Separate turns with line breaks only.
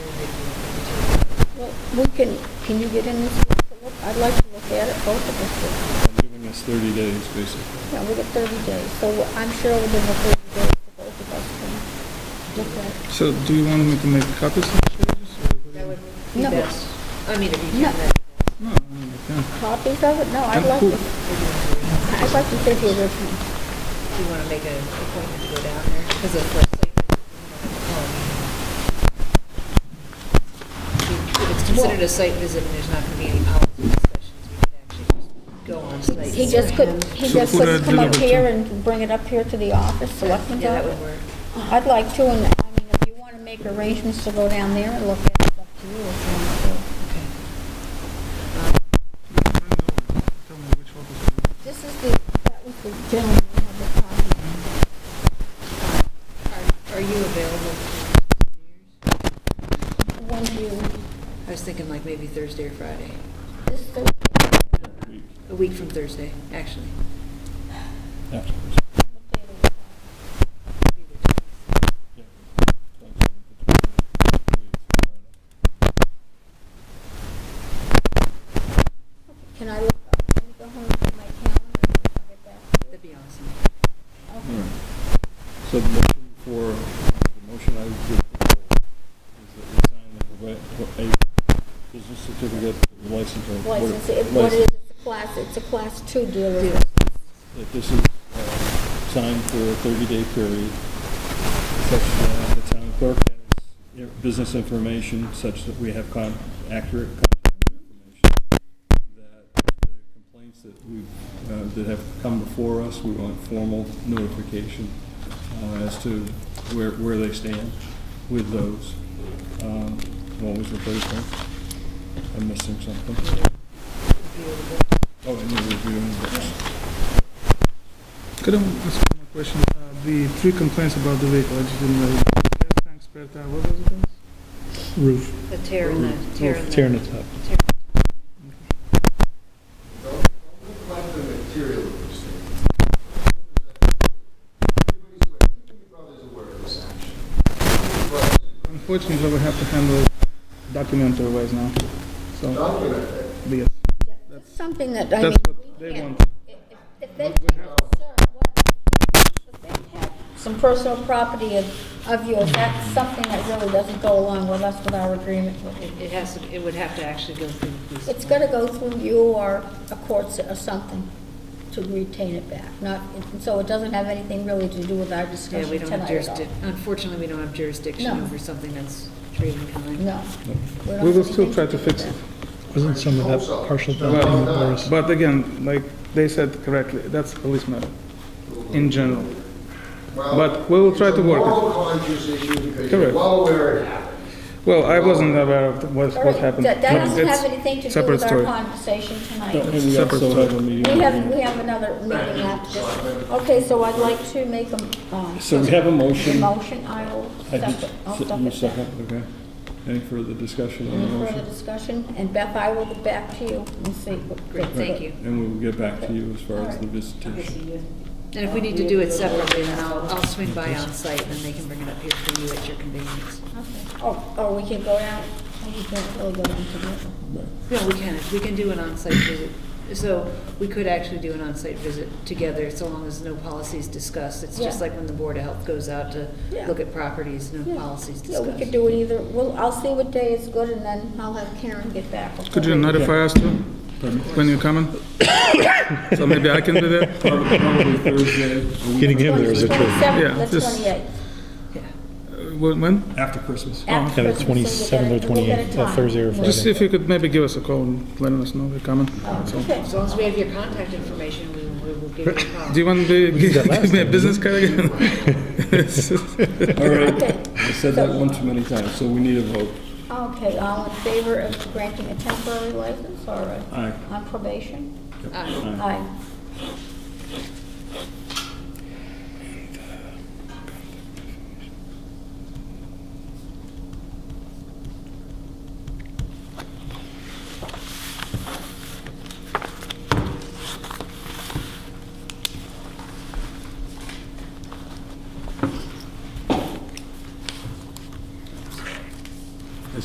we can, can you get in this week to look? I'd like to look at it, both of us. do.
I'm giving us 30 days, basically.
Yeah, we got thirty days, so I'm sure within the thirty days, the both of us can look at it.
So do you want me to make copies of the changes? or what do
That
you-
would be
No.
best. I mean, if you
No.
can, then.
No, I mean, you can.
Copies of it? No, I'd
Yeah,
like
cool.
to, I'd like to see the original.
Do you want to make an appointment to go down there? Because it's like, oh, I mean, if it's considered a site visit and there's not going to be any policy discussions, we could actually just go on site.
He just couldn't, he
So
just
could I
couldn't come up
deliver to-
here and bring it up here to the office, selectmen's
Yeah, that would
office?
work.
I'd like to, and I mean, if you want to make arrangements to go down there and look at it, it's up to you if you want to.
Okay. Um,
Tell me which office it is.
This is the, that was the gentleman who had the copy.
Are- Are you available for New Year's?
When do you,
I was thinking like maybe Thursday or Friday,
this Thursday,
Week
a week from Thursday, actually.
afterwards.
what day do
Maybe the 20th.
Yeah.
we- can I look up, let me go home and get my calendar, and I'll get back to you.
That'd be awesome.
All
Okay.
right. So the motion for, uh, the motion I would propose is that we sign the, a business certificate, license, or what-
License, it- what it is,
license.
it's a class, it's a class two dealer.
Yeah.
that this is uh, signed for a 30-day period, such that the town clerk has you know, business information such that we have con- accurate contact information, that the complaints that we, uh, that have come before us, we want formal notification uh, as to where, where they stand with those. Um, What was the third thing? I'm missing something. Oh, and the review and books.
Could I ask you one question? Uh, The three complaints about the vehicle, I just didn't know. Gas tank, spare tire, what was it? else?
roof,
The tear in the, tear in the.
tearing it up.
tear-
Like the material of this thing. Everybody's aware, everybody's aware of this action.
Unfortunately, we have to handle documentary ways now, so,
Document it.
yes.
It's Something that, I mean.
That's what
we
they
can't-
want.
if- if- If they take concern, what- if they have some personal property of, of yours, that's something that really doesn't go along with us with our agreement with you.
It it has to, it would have to actually go through the police.
It's gotta go through you or a court s- or something to retain it back, not, so it doesn't have anything really to do with our
Yeah, we
discussion
don't have
tonight at all.
jurisdiction, unfortunately, we don't have jurisdiction
No.
over something that's trade in kind.
No. We don't
We will
have
still
anything
try
do
to
with
fix
that.
it.
Wasn't some of that partial document there was
But again, like they said correctly, that's a police matter, in general.
Well,
But we will try to work it.
It's a moral conscience issue because you're
Correct.
well aware it happened.
Well, I wasn't aware of what,
All
what
right,
happened.
That that
but
doesn't
it's
have anything to do
separate
with our
story.
conversation tonight.
And we
Separate
also
story.
have a meeting.
We have, we have another meeting after this. Okay, so I'd like to make a, um,
So we have a
a
motion.
motion, I will
I did-
second, I'll
You
second that.
second, okay. Any further discussion on the
Any further
motion?
discussion? And Beth, I will get back to you and see. what-
Great, thank you.
And we will get back to you as far as the visitation.
And if we need to do it separately, then I'll, I'll swing by on site, and then they can bring it up here for you at your convenience.
Okay. Oh, or we can go out, we can really go down together.
No, we can, we can do an on-site visit. So we could actually do an on-site visit together, so long as no policies discussed. It's just
Yeah.
like when the Board of Health goes out to
Yeah.
look at properties, no
Yeah.
policies
Yeah,
discussed.
we could do it either, well, I'll see what day is good and then I'll have Karen get back. okay?
Could you notify us too, when you're coming? So maybe I can do that?
Probably probably Thursday, a week
Getting him there is a trip.
27th,
Yeah,
the
just- Oh,
28th.
When- When?
after Christmas.
After
Yeah, the
Christmas, Oh, so
27th or
we'll get a
28th,
time.
Thursday or
Just
Friday.
see if you could maybe give us a call and let us know you're coming. So-
Okay.
As long as we have your contact information, we we will give you a call.
Do you want to
did that
give
last
me a business card again?
All right,
Okay.
I said that one too many times, so we need a vote.
Okay, all in favor of granting a temporary license or a-
Aye.
on probation?
Yep.
Aye.
Aye.